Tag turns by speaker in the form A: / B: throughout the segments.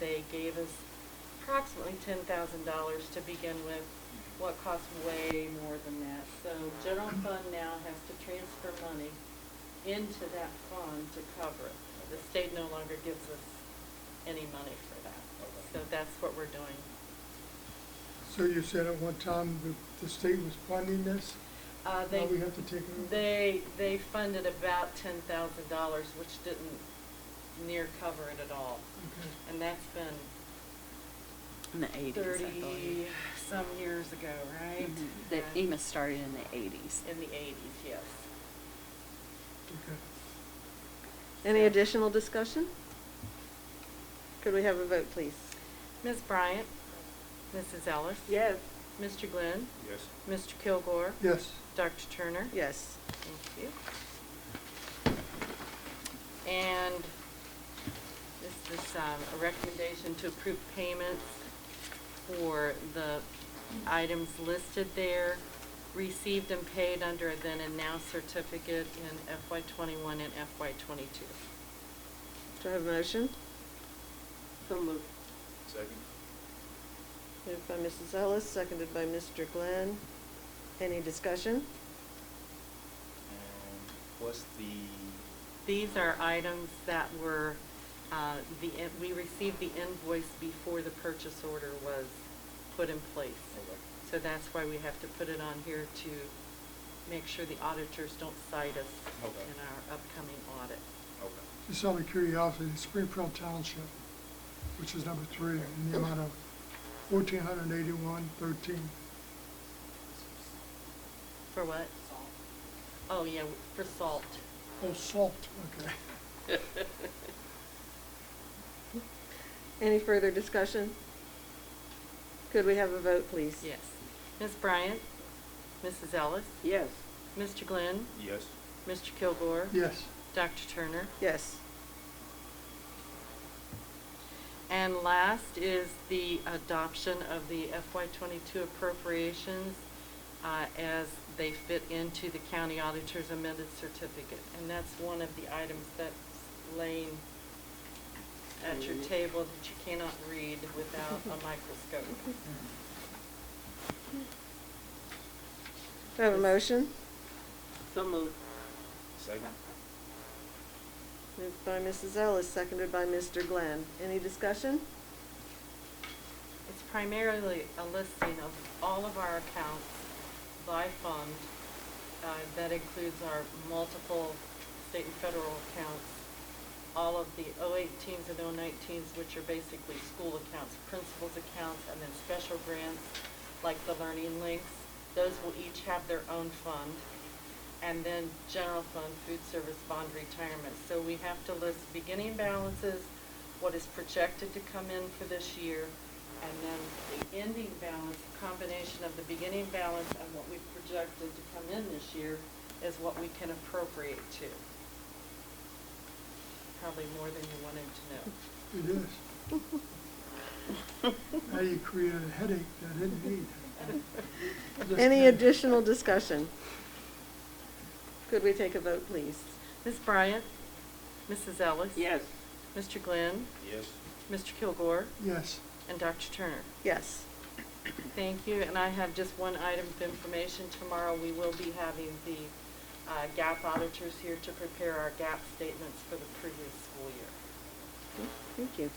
A: They gave us approximately ten thousand dollars to begin with, what costs way more than that. So general fund now has to transfer money into that fund to cover it. The state no longer gives us any money for that. So that's what we're doing.
B: So you said at one time the, the state was funding this?
A: Uh,
B: Now
A: they,
B: we have to take it over?
A: they, they funded about ten thousand dollars, which didn't near cover it at all.
B: Okay.
A: And that's been
C: In the eighties, I
A: thirty
C: believe.
A: some years ago, right?
C: Mhm. That
A: Uh,
C: EMA started in the eighties.
A: In the eighties, yes.
B: Okay.
D: Any additional discussion? Could we have a vote, please?
A: Ms. Bryant? Mrs. Ellis?
D: Yes.
A: Mr. Glenn?
E: Yes.
A: Mr. Kilgore?
B: Yes,
A: Dr. Turner?
D: Yes.
A: Thank you. And this is um, a recommendation to approve payments for the items listed there, received and paid under a then and now certificate in FY twenty-one and FY twenty-two.
D: Do I have a motion?
C: So moved.
E: Second?
D: Moved by Mrs. Ellis, seconded by Mr. Glenn. Any discussion?
E: And what's the,
A: These are items that were, uh, the, in- we received the invoice before the purchase order was put in place.
E: Okay.
A: So that's why we have to put it on here to make sure the auditors don't cite us in
E: Okay.
A: our upcoming audit.
E: okay,
B: just out of curiosity, Springfield Township, which is number three, in the amount of fourteen hundred and eighty-one thirteen.
A: For what? Oh, yeah, for salt.
B: Oh, salt, okay.
D: Any further discussion? Could we have a vote, please?
A: Yes. Ms. Bryant? Mrs. Ellis?
C: Yes.
A: Mr. Glenn?
E: yes,
A: Mr. Kilgore?
B: Yes,
A: Dr. Turner?
D: Yes.
A: And last is the adoption of the FY twenty-two appropriations uh, as they fit into the county auditor's amended certificate. And that's one of the items that's laying at your table that you cannot read without a microscope.
D: Do I have a motion?
C: So moved.
E: second?
D: Moved by Mrs. Ellis, seconded by Mr. Glenn. Any discussion?
A: It's primarily a listing of all of our accounts by fund. uh, That includes our multiple state and federal accounts, all of the 018s and 019s, which are basically school accounts, principals accounts, and then special grants like the Learning Links. Those will each have their own fund. And then general fund, food service, bond retirement. So we have to list beginning balances, what is projected to come in for this year, and then the ending balance, a combination of the beginning balance and what we've projected to come in this year is what we can appropriate to. Probably more than you wanted to know.
B: it is. Now you created a headache that I didn't need. Just
D: Any
B: kidding.
D: additional discussion? Could we take a vote, please?
A: Ms. Bryant? Mrs. Ellis?
C: Yes.
A: Mr. Glenn?
E: Yes.
A: Mr. Kilgore?
B: Yes,
A: And Dr. Turner?
D: Yes.
A: Thank you, and I have just one item of information. Tomorrow, we will be having the uh, GAP auditors here to prepare our GAP statements for the previous school year.
D: Thank you.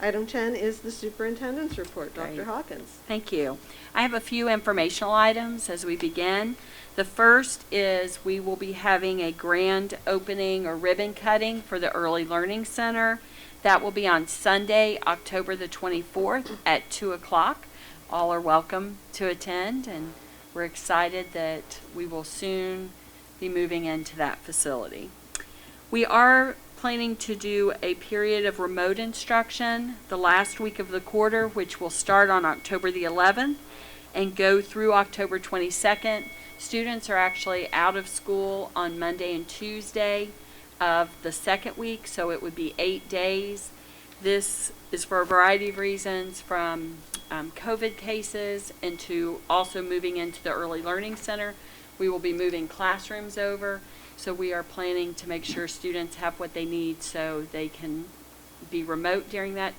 D: Item 10 is the superintendent's report. Dr.
C: Great.
D: Hawkins.
C: Thank you. I have a few informational items as we begin. The first is we will be having a grand opening or ribbon cutting for the Early Learning Center. That will be on Sunday, October the 24th at 2 o'clock. All are welcome to attend, and we're excited that we will soon be moving into that facility. We are planning to do a period of remote instruction the last week of the quarter, which will start on October the 11th and go through October 22nd. Students are actually out of school on Monday and Tuesday of the second week, so it would be eight days. This is for a variety of reasons, from um, COVID cases into also moving into the Early Learning Center. We will be moving classrooms over, so we are planning to make sure students have what they need so they can be remote during that